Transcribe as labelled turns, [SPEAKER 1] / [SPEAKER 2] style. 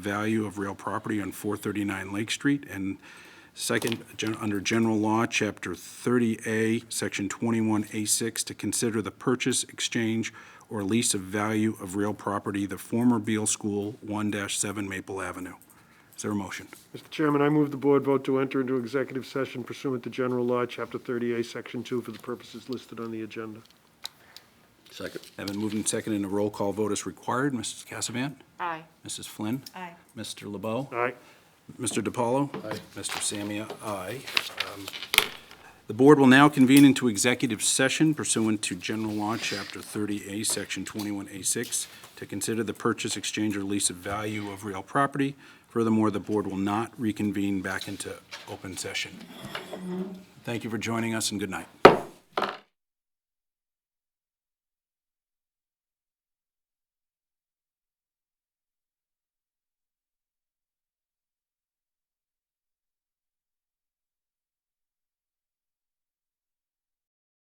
[SPEAKER 1] value of real property on 439 Lake Street, and second, gen- under General Law, Chapter 30A, Section 21A6, to consider the purchase, exchange, or lease of value of real property, the former Beal School, 1-7 Maple Avenue. Is there a motion?
[SPEAKER 2] Mr. Chairman, I move the board vote to enter into executive session pursuant to General Law, Chapter 38, Section 2, for the purposes listed on the agenda.
[SPEAKER 3] Second.
[SPEAKER 1] Have been moved and seconded, and a roll call vote is required. Mrs. Cassavant?
[SPEAKER 4] Aye.
[SPEAKER 1] Mrs. Flynn?
[SPEAKER 4] Aye.
[SPEAKER 1] Mr. LeBeau?
[SPEAKER 2] Aye.
[SPEAKER 1] Mr. DiPaolo? Aye. Mr. Samia? Aye. Um, The board will now convene into executive session pursuant to General Law, Chapter 30A, Section 21A6, to consider the purchase, exchange, or lease of value of real property. Furthermore, the board will not reconvene back into open session. Thank you for joining us, and good night.